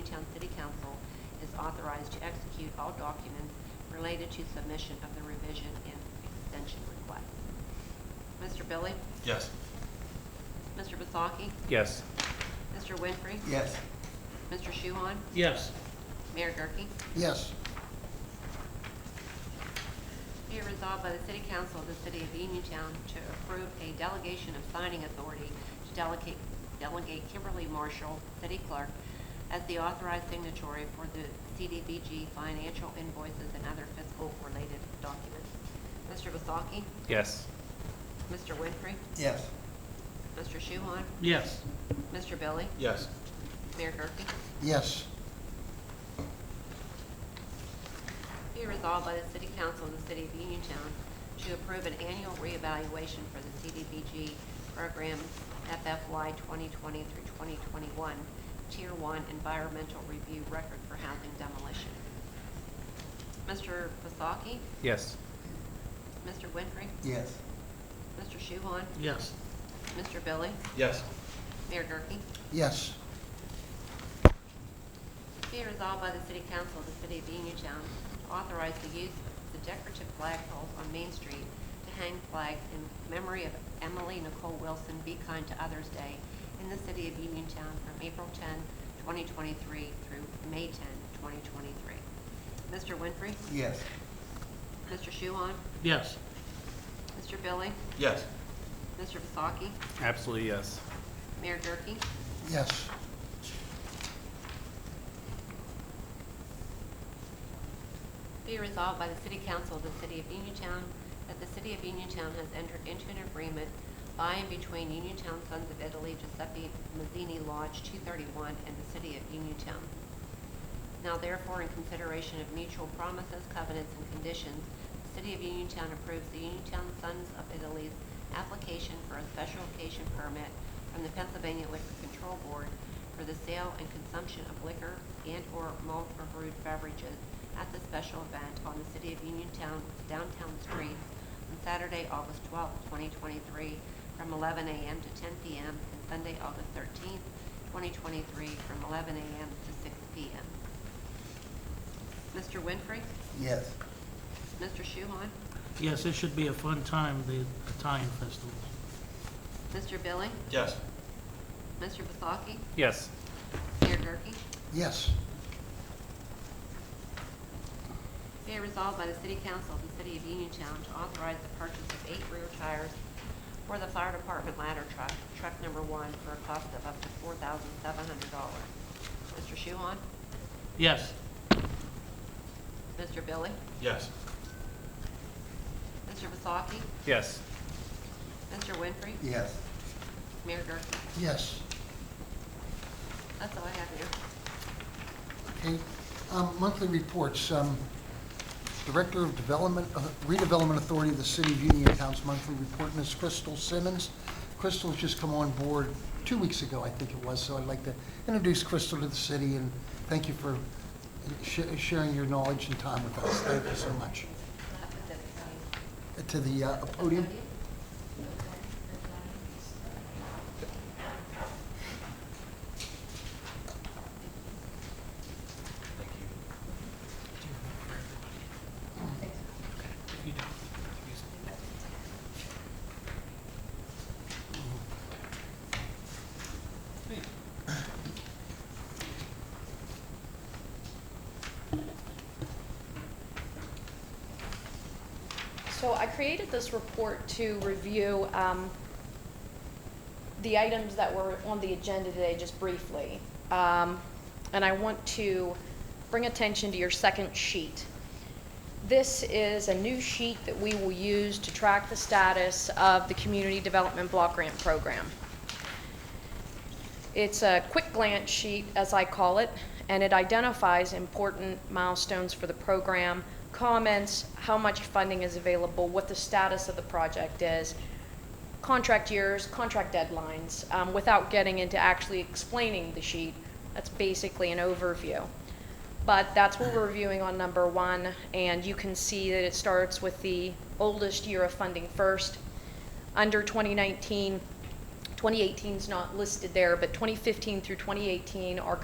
Germantown City Council is authorized to execute all documents related to submission of the revision and extension request. Mr. Billy? Yes. Mr. Vasaki? Yes. Mr. Winfrey? Yes. Mr. Shuhon? Yes. Mayor Gurke? Yes. Be it resolved by the City Council of the City of Uniontown to approve a delegation of signing authority to delegate, delegate Kimberly Marshall, City Clerk, as the authorized signatory for the CDBG financial invoices and other fiscal-related documents. Mr. Vasaki? Yes. Mr. Winfrey? Yes. Mr. Shuhon? Yes. Mr. Billy? Yes. Mayor Gurke? Yes. Be resolved by the City Council of the City of Uniontown to approve an annual reevaluation for the CDBG program FFY 2020 through 2021, Tier 1 Environmental Review Record for Housing Demolition. Mr. Vasaki? Yes. Mr. Winfrey? Yes. Mr. Shuhon? Yes. Mr. Billy? Yes. Mayor Gurke? Yes. Be resolved by the City Council of the City of Uniontown to authorize the use of the decorative flag poles on Main Street to hang flags in memory of Emily Nicole Wilson Be Kind to Others Day in the City of Uniontown from April 10, 2023 through May 10, 2023. Mr. Winfrey? Yes. Mr. Shuhon? Yes. Mr. Billy? Yes. Mr. Vasaki? Absolutely yes. Mayor Gurke? Yes. Be resolved by the City Council of the City of Uniontown that the City of Uniontown has entered into an agreement by and between Uniontown Sons of Italy Giuseppe Mazzini Lodge 231 and the City of Uniontown. Now therefore, in consideration of mutual promises, covenants, and conditions, the City of Uniontown approves the Uniontown Sons of Italy's application for a special occasion permit from the Pennsylvania Liquor Control Board for the sale and consumption of liquor and/or malt or brewed beverages at the special event on the City of Uniontown downtown streets on Saturday, August 12, 2023, from 11 a.m. to 10 p.m., and Sunday, August 13, 2023, from 11 a.m. to 6 p.m. Mr. Winfrey? Yes. Mr. Shuhon? Yes, this should be a fun time, the Italian festival. Mr. Billy? Yes. Mr. Vasaki? Yes. Mayor Gurke? Yes. Be it resolved by the City Council of the City of Uniontown to authorize the purchase of eight rear tires for the fire department ladder truck, truck number one, for a cost of up to four thousand seven hundred dollars. Mr. Shuhon? Yes, Mr. Billy? Yes. Mr. Vasaki? Yes. Mr. Winfrey? Yes. Mayor Gurke? Yes. That's all I have here. Okay, um, monthly reports. Um, Director of Development, uh, Redevelopment Authority of the City of Uniontown's monthly report, Ms. Crystal Simmons. Crystal's just come on board two weeks ago, I think it was, so I'd like to introduce Crystal to the city and thank you for sh- sharing your knowledge and time with us. Thank you so much. To the uh, podium. So I created this report to review um, the items that were on the agenda today, just briefly. Um, And I want to bring attention to your second sheet. This is a new sheet that we will use to track the status of the Community Development Block Grant Program. It's a quick glance sheet, as I call it, and it identifies important milestones for the program, comments, how much funding is available, what the status of the project is, contract years, contract deadlines, um, without getting into actually explaining the sheet. That's basically an overview. But that's what we're reviewing on number one, and you can see that it starts with the oldest year of funding first. Under 2019, 2018 is not listed there, but 2015 through 2018 are